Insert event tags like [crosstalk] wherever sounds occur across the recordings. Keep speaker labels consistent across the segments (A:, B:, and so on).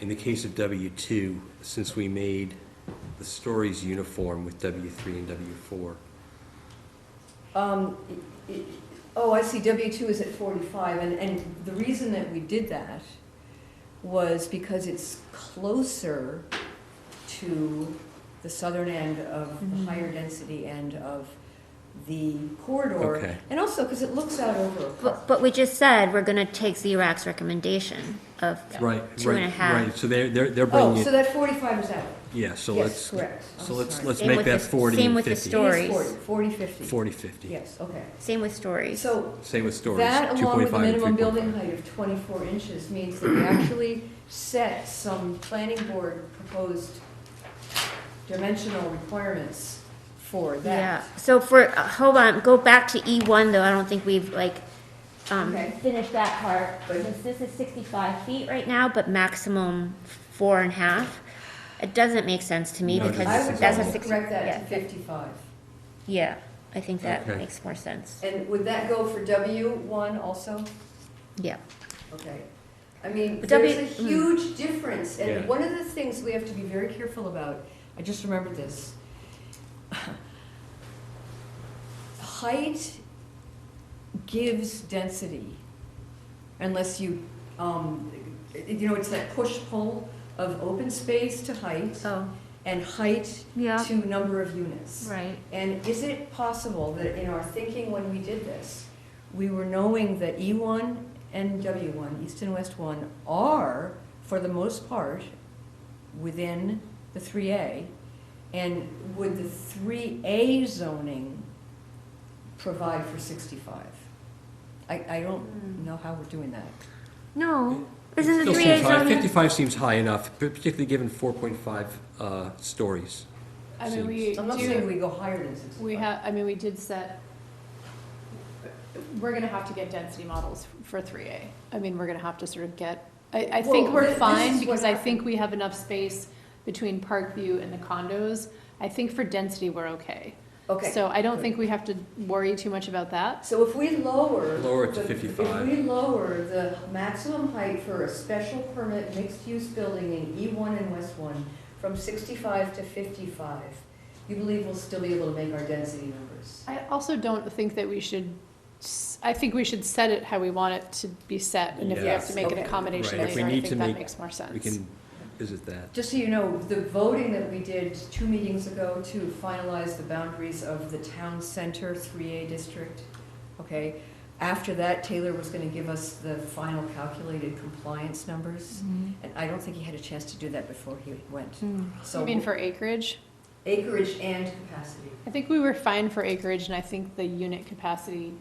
A: In the case of W two, since we made the stories uniform with W three and W four,
B: Um, i- i- Oh, I see, W-2 is at 45, and, and the reason that we did that was because it's closer to the southern end of the higher density end of the
A: Okay.
B: corridor. And also because it looks out over a
C: But,
B: park.
C: but we just said we're gonna take Xerox recommendation of
A: right,
C: two and a
A: right,
C: half.
A: right, so they're, they're, they're
B: Oh,
A: bringing
B: so
A: it,
B: that 45 is out.
A: yeah, so
B: Yes,
A: let's,
B: correct. I'm
A: so let's,
B: sorry.
A: let's
C: Same
A: make
C: with
A: that
C: the-
A: forty
C: same
A: and
C: with the
A: fifty.
C: story.
B: It is
C: Stories.
B: 40, 40, 50.
A: Forty, fifty,
B: Yes, okay.
C: Same with stories.
B: So
A: same with stories,
B: That,
A: two
B: along
A: point
B: with the
A: five and three
B: minimum
A: point five.
B: building height of 24 inches, means that we actually set some planning board proposed dimensional requirements for
C: Yeah,
B: that.
C: so for, uh, hold on, go back to E one though, I don't think we've like, um,
B: Okay.
C: finished that part. Because this is sixty-five feet right now, but maximum four and a half. It doesn't make sense to me
A: No, it
C: because
B: I would
C: that's a
B: like to
C: six.
B: correct that
C: yeah,
B: to 55.
C: Yeah, I think that
A: Okay.
C: makes more sense,
B: And would that go for W1 also?
C: yeah.
B: Okay. I mean,
C: But W-
B: there's a
C: mm.
B: huge difference,
A: Yeah.
B: and one of the things we have to be very careful about, I just remembered this. [sighs] Height gives density unless you, um, you know, it's that push-pull of open space to height
C: So,
B: and height
C: Oh. yeah,
B: to number of units.
C: right.
B: And is it possible that in our thinking when we did this, we were knowing that E1 and W1, East and West 1, are, for the most part, within the 3A? And would the 3A zoning provide for 65? I, I
D: Hmm.
B: don't know how we're doing that.
C: No, isn't the
A: Still
C: three
A: seems
C: A
A: high.
C: zoning?
A: Fifty-five seems high enough, particularly given four point five, uh, stories.
D: I mean, we
B: I'm not saying
D: do,
B: we go higher than 65.
D: we have, I mean, we did set, we're gonna have to get density models for three A. I mean, we're gonna have to sort of get, I, I think
B: Well,
D: we're
B: th- this is
D: fine
B: what
D: because I think
B: happened.
D: we have enough space between Parkview and the condos. I think for density, we're okay.
B: Okay.
D: So I don't think we have to worry too much about that.
B: So if we lower.
A: Lower it to
B: the-
A: 55.
B: If we lower the maximum height for a special permit mixed-use building in E one and West one from sixty-five to fifty-five, you believe we'll still be able to make our density numbers?
D: I also don't think that we should, s- I think we should set it how we want it to be set. And if we have
B: Yes,
D: to make an
B: okay.
D: accommodation
A: Right, if we
D: later, I
A: need
D: think
A: to
D: that
A: make-
D: makes more sense.
A: We can visit that.
B: Just so you know, the voting that we did two meetings ago to finalize the boundaries of the town center three A district, okay? After that, Taylor was gonna give us the final calculated compliance numbers, and I don't think he had a chance to do that before he went. So.
D: You mean for acreage?
B: Acreage and capacity.
D: I think we were fine for acreage, and I think the unit capacity,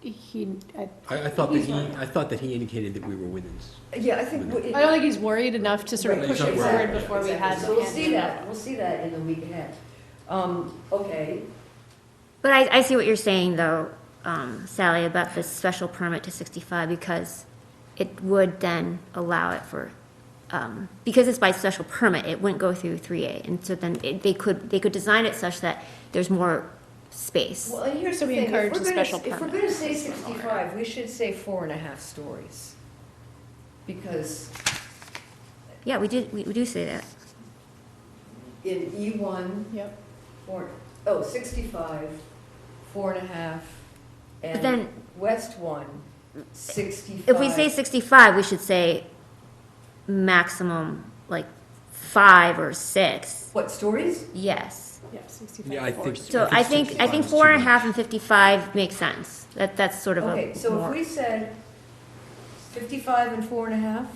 D: he, I,
E: I, I thought that he, I thought that he indicated that we were within. s-
B: Yeah, I think. we-
D: I don't think he's worried enough to sort of
B: Right.
D: push it
A: Exactly.
D: forward before we
B: Exactly.
D: had.
B: So we'll see that, we'll see that in the week ahead. Um, okay,
C: But I, I see what you're saying though, um, Sally, about this special permit to sixty-five because it would then allow it for, um, because it's by special permit, it wouldn't go through three A. And so then it, they could, they could design it such that there's more space.
B: well, and here's the
D: So we
B: thing. if
D: encourage
B: we're
D: the
B: gonna-
D: special
B: If we're
D: permit
B: gonna say
D: system over.
B: sixty-five, we should say four and a half stories. Because
C: Yeah, we did, we we do say that.
B: in E one,
D: Yep,
B: four, oh, sixty-five, four and a half,
C: But
B: and
C: then
B: West one, sixty-five.
C: if we say sixty-five, we should say maximum like five or six.
B: What, stories?
C: Yes.
D: yep,
A: Yeah, I
D: sixty-five
A: think.
C: So I think, I
A: 65
C: think
A: is
C: four
A: too
C: and a
A: much.
C: half and fifty-five makes sense. That, that's sort of a
B: Okay, so if
C: more-
B: we said fifty-five and four and a half,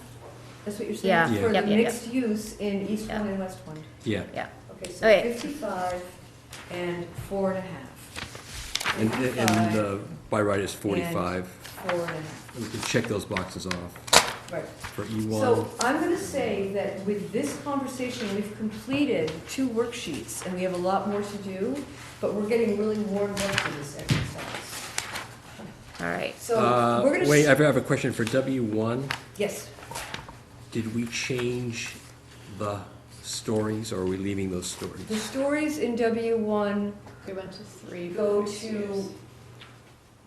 B: that's what you're saying?
C: Yeah.
A: Yeah.
B: For the
C: Yep, yep, yep.
B: mixed use in East
C: Yeah.
B: One and West One.
A: Yeah,
B: Okay, so
C: Okay.
B: fifty-five and four and a half.
A: and, and uh, the by right is forty-five.
B: Four and a half,
A: We can check those boxes off
B: right.
A: for E one.
B: So I'm gonna say that with this conversation, we've completed two worksheets, and we have a lot more to do, but we're getting really worn out with this exercise.
C: all right.
B: So we're gonna.
A: Uh, Wait, I
B: s-
A: have a question for W one.
B: Yes,
A: Did we change the stories or are we leaving those
B: the
A: stories?
B: stories in W one
D: we went to three.
B: go
D: for
B: to
D: years.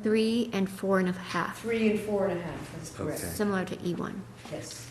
C: Three and four and a half,
B: Three and four and a half, that's
A: Okay.
B: correct,
C: similar to E E1.
B: yes.